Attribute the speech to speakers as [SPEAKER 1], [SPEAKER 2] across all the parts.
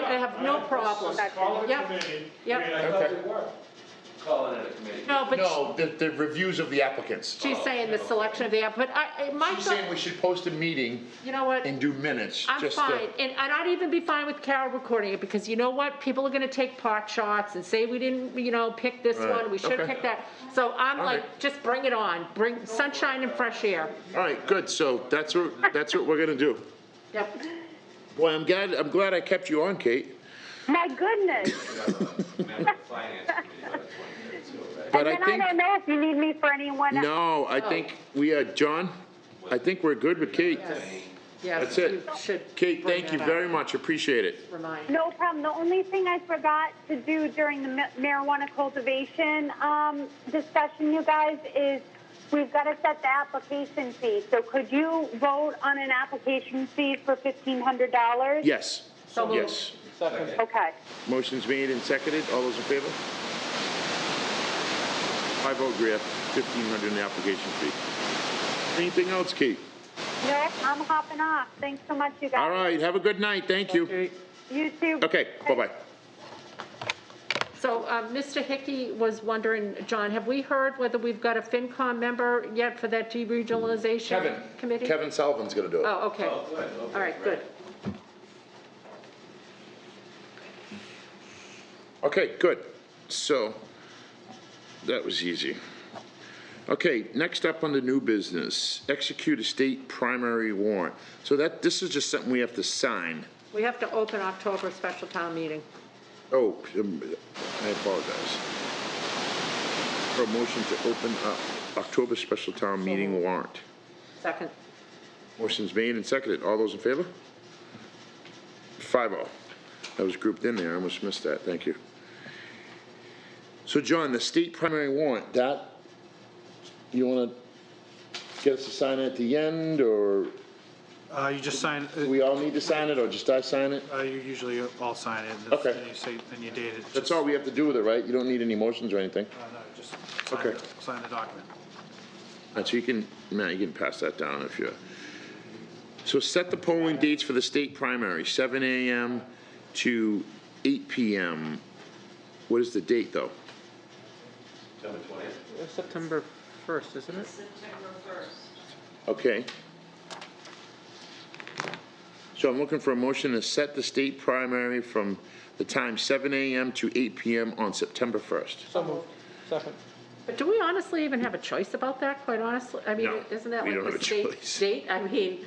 [SPEAKER 1] I have no
[SPEAKER 2] Let's
[SPEAKER 1] problem.
[SPEAKER 2] just Call it a
[SPEAKER 1] Yep.
[SPEAKER 2] committee, I
[SPEAKER 1] Yep.
[SPEAKER 2] mean, I thought
[SPEAKER 3] Okay.
[SPEAKER 2] they were.
[SPEAKER 4] calling it a committee.
[SPEAKER 1] No, but sh-
[SPEAKER 3] No, the, the reviews of the applicants.
[SPEAKER 1] she's saying the selection of the, app- but I, I- my
[SPEAKER 3] She's saying
[SPEAKER 1] thought,
[SPEAKER 3] we should post a meeting
[SPEAKER 1] you know what?
[SPEAKER 3] and do minutes.
[SPEAKER 1] I'm
[SPEAKER 3] just uh, to-
[SPEAKER 1] fine, and, and I'd even be fine with Carol recording it, because you know what, people are gonna take pot shots and say we didn't, you know, pick this
[SPEAKER 3] Right,
[SPEAKER 1] one, we should
[SPEAKER 3] okay.
[SPEAKER 1] pick that. So I'm
[SPEAKER 3] All
[SPEAKER 1] like,
[SPEAKER 3] right.
[SPEAKER 1] just bring it on, bring sunshine and fresh air.
[SPEAKER 3] All right, good, so that's what, that's what we're gonna do.
[SPEAKER 1] Yep,
[SPEAKER 3] Boy, I'm glad, I'm glad I kept you on, Kate,
[SPEAKER 5] My goodness.
[SPEAKER 4] We have a member of the finance committee on the 23rd too, right?
[SPEAKER 3] but I
[SPEAKER 5] and then
[SPEAKER 3] think,
[SPEAKER 5] I don't know if you need me for anyone else.
[SPEAKER 3] no, I think we, uh, John, I think we're good with Kate.
[SPEAKER 1] yes, yes,
[SPEAKER 3] That's it.
[SPEAKER 1] you should.
[SPEAKER 3] Kate,
[SPEAKER 1] bring
[SPEAKER 3] thank you
[SPEAKER 1] that
[SPEAKER 3] very
[SPEAKER 1] up.
[SPEAKER 3] much, appreciate it.
[SPEAKER 1] Remind,
[SPEAKER 5] No problem. The only thing I forgot to do during the ma- marijuana cultivation um, discussion, you guys, is we've got to set the application fee. So could you vote on an application fee for $1,500?
[SPEAKER 3] Yes,
[SPEAKER 1] So moved.
[SPEAKER 3] yes.
[SPEAKER 5] Okay.
[SPEAKER 3] Motion's made and seconded, all those in favor? I vote Griff, fifteen hundred in the application fee. Anything else, Kate?
[SPEAKER 5] No, I'm hopping off. Thanks so much, you guys.
[SPEAKER 3] All right, have a good night, thank you.
[SPEAKER 5] You too.
[SPEAKER 3] Okay, bye-bye.
[SPEAKER 1] so, um, Mr. Hickey was wondering, John, have we heard whether we've got a FinCom member yet for that deregionalization committee?
[SPEAKER 3] Kevin Sullivan's gonna do it.
[SPEAKER 1] Oh, okay,
[SPEAKER 4] Oh, good, okay.
[SPEAKER 1] all right, good.
[SPEAKER 3] Okay, good. So, that was easy. Okay, next up on the new business, execute a state primary warrant. So that, this is just something we have to sign.
[SPEAKER 1] We have to open October special town meeting.
[SPEAKER 3] Oh, um, I apologize. For a motion to open up October special town meeting warrant.
[SPEAKER 1] Second,
[SPEAKER 3] Motion's made and seconded. All those in favor? Five oh. That was grouped in there. I almost missed that. Thank you. So John, the state primary warrant, that, you wanna get us to sign it at the end, or
[SPEAKER 6] Uh, you just sign, uh,
[SPEAKER 3] we all need to sign it, or just I sign it?
[SPEAKER 6] uh, you usually all sign it. and
[SPEAKER 3] Okay.
[SPEAKER 6] Then you say, then you date it.
[SPEAKER 3] That's all we have to do with it, right? You don't need any motions or anything?
[SPEAKER 6] Uh, no, just sign
[SPEAKER 3] Okay.
[SPEAKER 6] it, sign the document.
[SPEAKER 3] Uh, So you can, Matt, you can pass that down if you. So set the polling dates for the state primary, seven AM to eight PM. What is the date, though?
[SPEAKER 4] September 20th.
[SPEAKER 7] September 1st, isn't it?
[SPEAKER 3] Okay. So I'm looking for a motion to set the state primary from the time seven AM to eight PM on September first.
[SPEAKER 7] So moved. Second.
[SPEAKER 1] but do we honestly even have a choice about that, quite honestly? I mean,
[SPEAKER 3] No,
[SPEAKER 1] isn't that
[SPEAKER 3] we don't
[SPEAKER 1] like
[SPEAKER 3] have
[SPEAKER 1] the
[SPEAKER 3] a
[SPEAKER 1] state
[SPEAKER 3] choice.
[SPEAKER 1] date? I mean,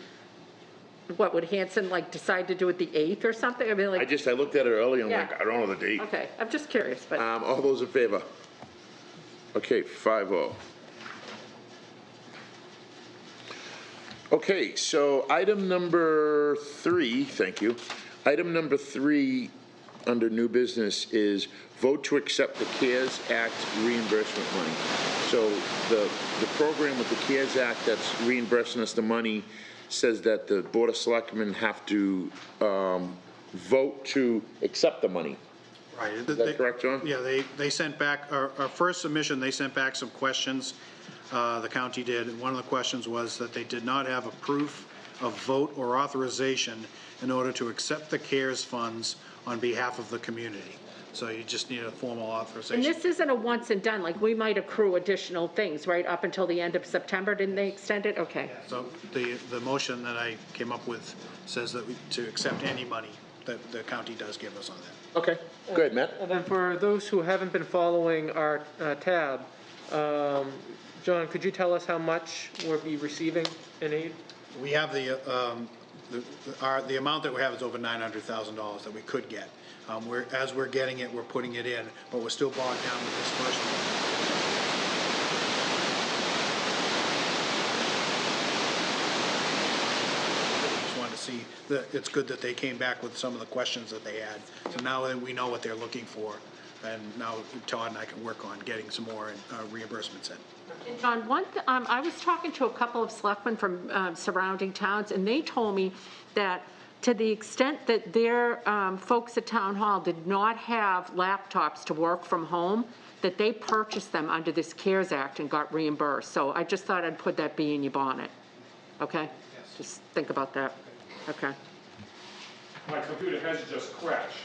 [SPEAKER 1] what, would Hanson like decide to do it the 8th or something? I mean,
[SPEAKER 3] I
[SPEAKER 1] like,
[SPEAKER 3] just, I looked at it earlier and I'm
[SPEAKER 1] Yeah.
[SPEAKER 3] like, I don't know the date.
[SPEAKER 1] okay, I'm just curious, but,
[SPEAKER 3] Um, all those in favor? Okay, five oh. Okay, so item number three, thank you. Item number three under new business is vote to accept the CARES Act reimbursement money. So the, the program with the CARES Act that's reimbursing us the money says that the Board of Selectmen have to, um, vote to accept the money.
[SPEAKER 6] Right. Is
[SPEAKER 3] that correct, John?
[SPEAKER 6] Yeah, they, they sent back, our, our first submission, they sent back some questions, uh, the county did. And one of the questions was that they did not have a proof of vote or authorization in order to accept the CARES funds on behalf of the community. So you just need a formal
[SPEAKER 1] and
[SPEAKER 6] authorization.
[SPEAKER 1] this isn't a once and done, like, we might accrue additional things, right, up until the end of September, didn't they extend it? Okay,
[SPEAKER 6] So the, the motion that I came up with says that we, to accept any money that the county does give us on that.
[SPEAKER 3] Okay, good, Matt.
[SPEAKER 7] And then for those who haven't been following our uh, tab, um, John, could you tell us how much we'll be receiving in aid?
[SPEAKER 6] We have the, um, the, our, the amount that we have is over nine hundred thousand dollars that we could get. Um, we're, as we're getting it, we're putting it in, but we're still bogged down with this first one. Just wanted to see, that, it's good that they came back with some of the questions that they had. So now that we know what they're looking for, and now Todd and I can work on getting some more uh, reimbursements in.
[SPEAKER 1] And John, one, th- um, I was talking to a couple of selectmen from, um, surrounding towns, and they told me that to the extent that their, um, folks at town hall did not have laptops to work from home, that they purchased them under this CARES Act and got reimbursed. So I just thought I'd put that bee in your bonnet, okay? Just think about that, okay?
[SPEAKER 2] My computer has just crashed.